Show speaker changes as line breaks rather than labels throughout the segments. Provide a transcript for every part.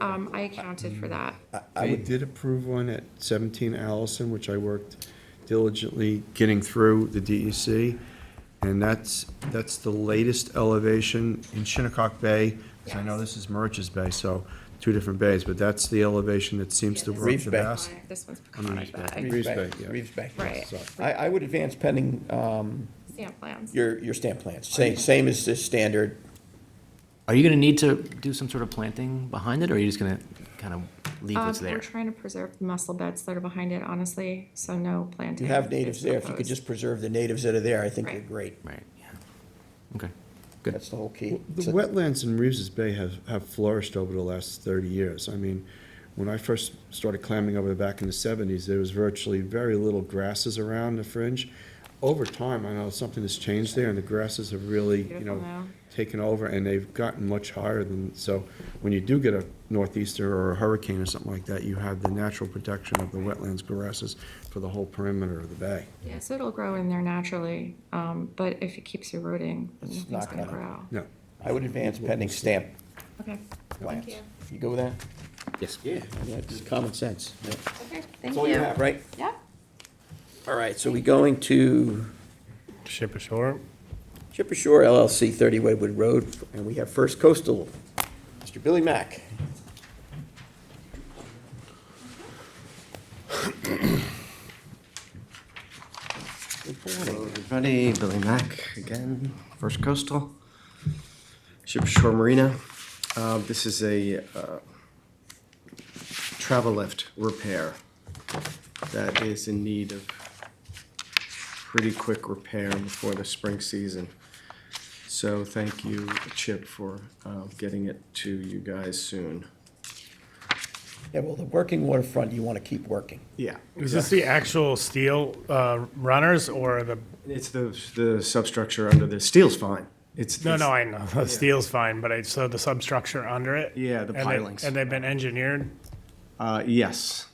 Um, I accounted
Mm.
for that.
I- I did approve one at 17 Allison, which I worked diligently getting through the DEC. And that's, that's the latest elevation in Shinnecock Bay, because I know this is Merch's Bay, so two different bays, but that's the elevation that seems to work
Reeves
the
Bay.
best.
This one's
I mean,
Peconic Bay,
Reeves
Reeves Bay,
Bay, yeah.
Reeves Bay.
right,
so-
I, I would advance pending, um,
stamp plans.
your, your stamp plans, same, same as the standard.
Are you gonna need to do some sort of planting behind it, or are you just gonna kind of leave
Um,
what's
we're
there?
trying to preserve the muscle beds that are behind it, honestly, so no planting.
You have natives
is
there, if you could
proposed.
just preserve the natives that are there, I think they're
Right.
great.
Right, yeah. Okay, good.
That's the whole key.
The
So-
wetlands in Reeves's Bay have, have flourished over the last 30 years. I mean, when I first started clamming over the back in the 70s, there was virtually very little grasses around the fringe. Over time, I know something has changed there, and the grasses have really, you
Beautiful
know,
now.
taken over, and they've gotten much higher than, so when you do get a northeaster or a hurricane or something like that, you have the natural protection of the wetlands grasses for the whole perimeter of the bay.
Yeah, so it'll grow in there naturally, um, but if it keeps eroding,
It's
nothing's
not
gonna
gonna-
grow.
No,
I would advance pending stamp
Okay,
plans.
you.
You go with that?
Yes.
Yeah, yeah, it's common sense. yeah.
okay, thank
That's all you
you.
have, right?
Yeah,
All right, so we going to
Ship ashore.
Chipper Shore LLC, 30 Waywood Road, and we have First Coastal, Mr. Billy Mack.
Hello, everybody. Billy Mack again, First Coastal, Ship Shore Marina. Uh, This is a uh, travel lift repair that is in need of pretty quick repair before the spring season. So thank you, Chip, for uh, getting it to you guys soon.
Yeah, well, the working waterfront, you want to keep working.
Yeah.
Is this the actual steel uh, runners or the?
It's the, the substructure under the steel's fine. It's.
No,
it's-
no, I know the steel's fine, but I saw the substructure under it.
Yeah, the
and they-
pilings.
and they've been engineered.
Uh, yes.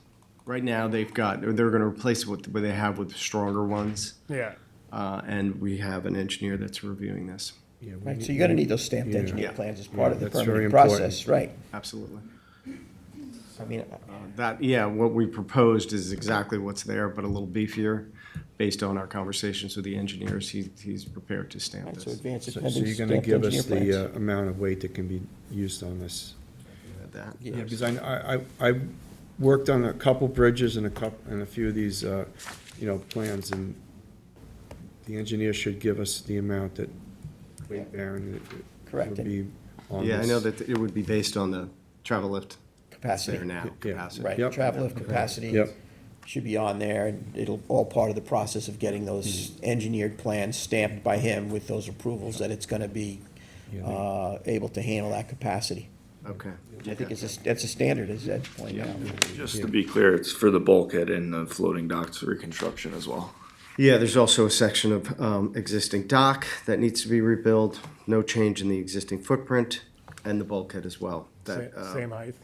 Right now, they've got, they're gonna replace what, what they have with stronger ones.
Yeah,
Uh, and we have an engineer that's reviewing this.
Right, so you're going to need those stamped engineer
Yeah.
plans as part of the
Yeah, that's very
permitting process, right?
Absolutely.
I mean, uh,
Uh, That, yeah, what we proposed is exactly what's there, but a little beefier. Based on our conversations with the engineers, he, he's prepared to stamp
right, so
this.
advance it
so so
pending
you're gonna
stamped
give
engineer
us the
plans.
uh, amount of weight that can be used on this.
That.
Yeah, because I, I, I I've worked on a couple bridges and a coup and a few of these, uh, you know, plans, and the engineer should give us the amount that weight bearing that it
Correct,
would
and-
be on
Yeah, I
this.
know that it would be based on the travel lift that's
Capacity.
there now,
Yeah.
capacity.
Right,
Yep.
travel of capacity
Yep.
should be on there, and it'll, all part of the process of getting those
Hmm.
engineered plans stamped by him with those approvals that it's gonna be, uh, able to handle that capacity.
Okay.
I think it's a, that's a standard, is that point now.
Just to be clear, it's for the bulkhead and the floating docks reconstruction as well.
Yeah, there's also a section of um, existing dock that needs to be rebuilt, no change in the existing footprint, and the bulkhead as well. That
sa-
uh,
same height.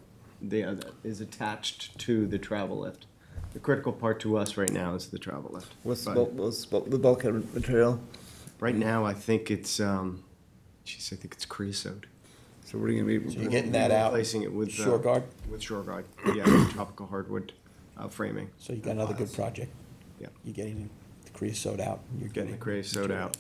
the- uh, that is attached to the travel lift. The critical part to us right now is the travel lift.
What's the,
But
bulk, what's the bulk- the bulkhead material?
Right now, I think it's, um, geez, I think it's creosote.
So we're gonna be.
You're getting that out.
Replacing it with, uh,
Shore guard,
With shore guard, yeah, with tropical hardwood uh, framing.
so you got another good project.
Yeah.
You're getting the creosote out. You're
Getting the creosote out.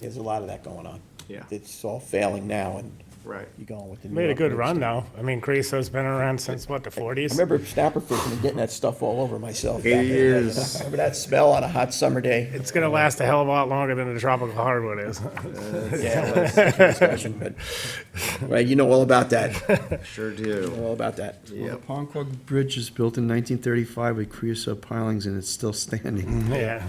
There's a lot of that going on.
Yeah.
It's all failing now, and
Right.
you're going with the. new
Made a good
upgrades.
run now. I mean, Creosote's been around since what the
I
forties.
remember snapper fishing and getting that stuff all over myself. back in the day. Remember that smell on a hot summer day?
It's gonna last a hell of a lot longer than the tropical hardwood is.
Yeah, well, that's a different discussion, but- Right, you know all about that.
Sure
You
do.
know all about that.
Well, the Ponquag Bridge is built in nineteen thirty-five with creosote pilings, and it's still standing.
yeah.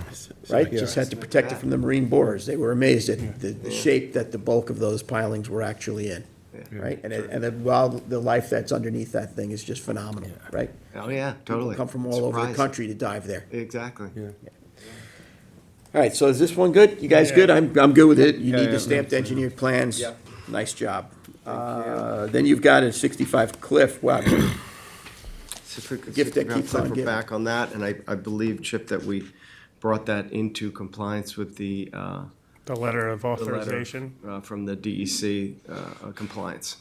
Right,
Yeah.
just had to protect it from the marine borers. They were amazed at the, the shape that the bulk of those pilings were actually in. Right, and, it- and the wild, the life that's underneath that thing is just phenomenal, right?
Oh, yeah,
People
totally.
Come from all over the
Surprising.
country to dive there.
Exactly.
Yeah.
All right, so is this one good? You guys
Yeah.
good? I'm, I'm good with it. You
Yeah,
need
yeah.
the stamped engineered plans.
Yep.
Nice job. Uh, then you've got a sixty-five Cliff. Wow,
So if we could-
Gift that
if we could
keeps on
flip
giving.
Back on that, and I, I believe, Chip, that we brought that into compliance with the, uh,
The letter of
the letter,
authorization.
E uh, from the DEC, uh, uh, compliance.